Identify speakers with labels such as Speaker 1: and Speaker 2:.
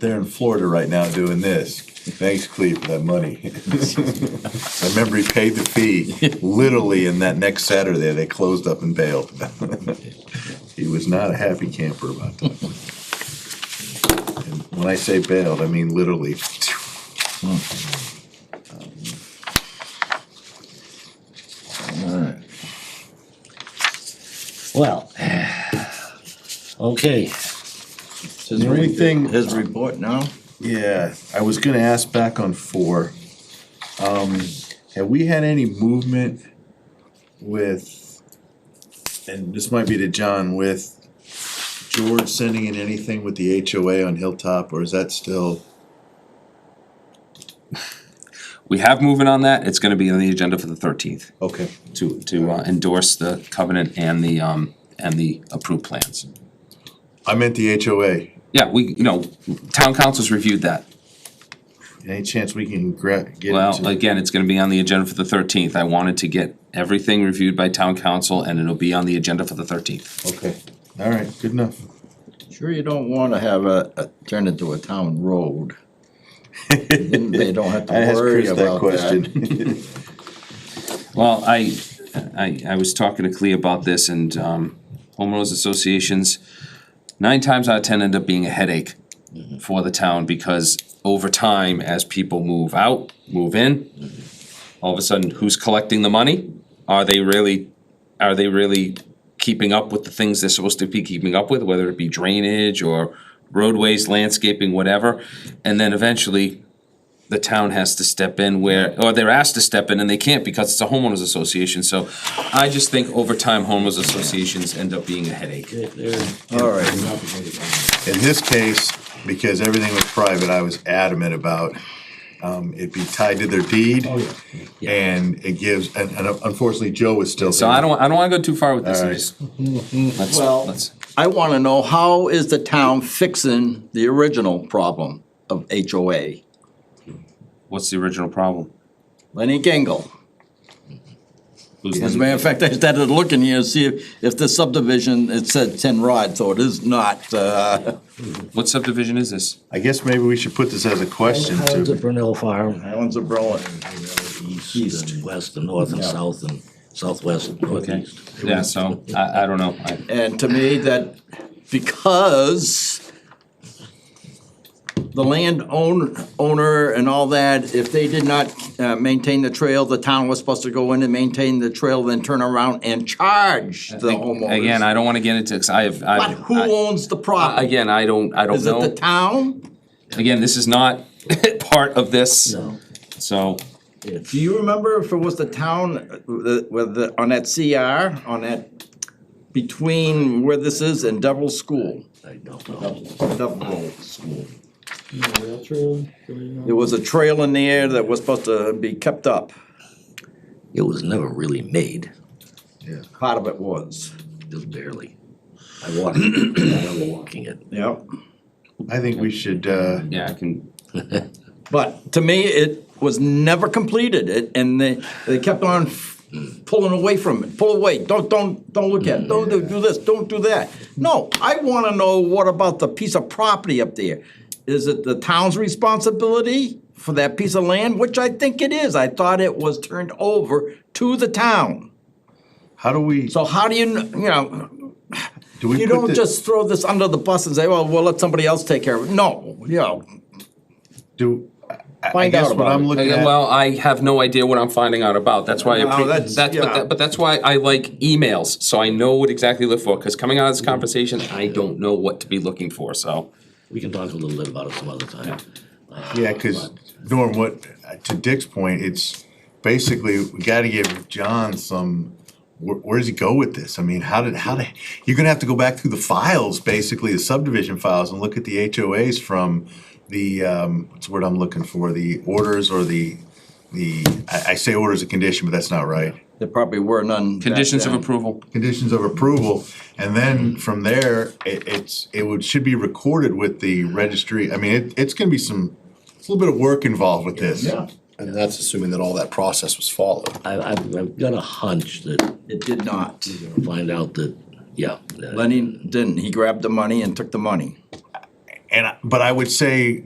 Speaker 1: they're in Florida right now doing this. Thanks, Cleve, for that money. I remember he paid the fee, literally, and that next Saturday, they closed up and bailed. He was not a happy camper about that. And When I say bailed, I mean literally.
Speaker 2: Alright. Well, okay,
Speaker 1: The only thing-
Speaker 3: His report now?
Speaker 1: Yeah, I was gonna ask back on four. Um, have we had any movement with, and this might be to John, with George sending in anything with the HOA on Hilltop, or is that still?
Speaker 4: We have movement on that, it's gonna be on the agenda for the thirteenth
Speaker 1: Okay,
Speaker 4: to, to uh, endorse the covenant and the, um, and the approved plans.
Speaker 1: I meant the HOA.
Speaker 4: Yeah, we, you know, town council's reviewed that.
Speaker 1: Any chance we can gra- get into?
Speaker 4: Well, again, it's gonna be on the agenda for the thirteenth. I wanted to get everything reviewed by town council and it'll be on the agenda for the thirteenth.
Speaker 1: Okay, all right, good enough.
Speaker 3: Sure you don't wanna have a, a, turn into a town road. Then They don't have to
Speaker 1: I asked
Speaker 3: worry
Speaker 1: Chris that
Speaker 3: about that.
Speaker 1: question.
Speaker 4: Well, I, I, I was talking to Clea about this and, um, homeowners associations, nine times out of ten end up being a headache for the town because over time, as people move out, move in, all of a sudden, who's collecting the money? Are they really, are they really keeping up with the things they're supposed to be keeping up with, whether it be drainage or roadways, landscaping, whatever? And then eventually, the town has to step in where, or they're asked to step in and they can't because it's a homeowners association. So I just think over time, homeowners associations end up being a headache.
Speaker 2: there- there-
Speaker 3: All right,
Speaker 1: In this case, because everything was private, I was adamant about, um, it be tied to their deed.
Speaker 3: Oh,
Speaker 1: And it gives, and, and unfortunately, Joe is still.
Speaker 4: So
Speaker 1: there.
Speaker 4: I don't, I don't wanna go too far with this, I
Speaker 1: Alright.
Speaker 4: just. let's-
Speaker 3: Well-
Speaker 4: let's-
Speaker 3: I wanna know, how is the town fixing the original problem of HOA?
Speaker 4: What's the original problem?
Speaker 3: Lenny Gangle.
Speaker 4: Who's
Speaker 3: As a
Speaker 4: the-
Speaker 3: matter of fact, I started looking here to see if, if the subdivision, it said ten rod, so it is not, uh,
Speaker 4: What subdivision is this?
Speaker 1: I guess maybe we should put this as a question
Speaker 2: Highlands of
Speaker 1: to,
Speaker 2: Brunel Farm,
Speaker 3: Highlands of Berlin.
Speaker 2: east and west and north and south and southwest and
Speaker 4: Okay,
Speaker 2: northeast.
Speaker 4: yeah, so, I, I don't know, I,
Speaker 3: And to me, that because the land own, owner and all that, if they did not, uh, maintain the trail, the town was supposed to go in and maintain the trail, then turn around and charge the homeowners.
Speaker 4: again, I don't wanna get into, 'cause I have, I.
Speaker 3: But who owns the
Speaker 4: I-
Speaker 3: property?
Speaker 4: Again, I don't, I don't
Speaker 3: Is it the
Speaker 4: know,
Speaker 3: town?
Speaker 4: again, this is not part of this,
Speaker 2: No,
Speaker 4: so,
Speaker 2: it's,
Speaker 3: Do you remember if it was the town uh, the- with the, on that CR, on that, between where this is and Devil's School?
Speaker 2: I don't know.
Speaker 3: Devil School.
Speaker 5: Rail trail going on.
Speaker 3: There was a trail in the air that was supposed to be kept up.
Speaker 2: It was never really made,
Speaker 3: Part of it was.
Speaker 2: just barely. I walked, I remember walking it.
Speaker 3: Yep.
Speaker 1: I think we should, uh,
Speaker 4: yeah, I can,
Speaker 3: But to me, it was never completed. It and they they kept on pulling away from it. Pull away. Don't don't don't look at. It. Don't do do this. Don't do that. No, I want to know what about the piece of property up there? Is it the town's responsibility for that piece of land? Which I think it is. I thought it was turned over to the town.
Speaker 1: how do we,
Speaker 3: So how do you kn- you know?
Speaker 1: do we
Speaker 3: You
Speaker 1: put
Speaker 3: don't
Speaker 1: the,
Speaker 3: just throw this under the bus and say, "Well, we'll let somebody else take care of it." No, you know,
Speaker 1: do, I- I
Speaker 3: Find
Speaker 1: guess
Speaker 3: out
Speaker 1: what
Speaker 3: about
Speaker 1: I'm
Speaker 3: it.
Speaker 1: looking
Speaker 4: again,
Speaker 1: at,
Speaker 4: well, I have no idea what I'm finding out about, that's why I,
Speaker 3: Wow,
Speaker 4: appre-
Speaker 3: that's-
Speaker 4: that's, but
Speaker 3: yeah.
Speaker 4: that, but that's why I like emails, so I know what exactly to look for, cause coming out of this conversation, I don't know what to be looking for, so.
Speaker 2: We can talk a little bit about it some other time.
Speaker 1: yeah, cause Norm, what, to Dick's point, it's basically, we gotta give John some, where, where does he go with this? I mean, how did, how did, you're gonna have to go back through the files, basically, the subdivision files, and look at the HOAs from the, um, what's the word I'm looking for, the orders or the, the, I, I say orders of condition, but that's not right.
Speaker 3: there probably were none. back
Speaker 4: Conditions of
Speaker 3: then.
Speaker 4: approval,
Speaker 1: conditions of approval, and then from there, it, it's, it would, should be recorded with the registry, I mean, it, it's gonna be some, it's a little bit of work involved with this. Yeah.
Speaker 6: And that's assuming that all that process was followed.
Speaker 2: I, I've, I've got a hunch that,
Speaker 3: It did not.
Speaker 2: find out that, yeah. that-
Speaker 3: Lenny didn't. He grabbed the money and took the money.
Speaker 1: And, I- but I would say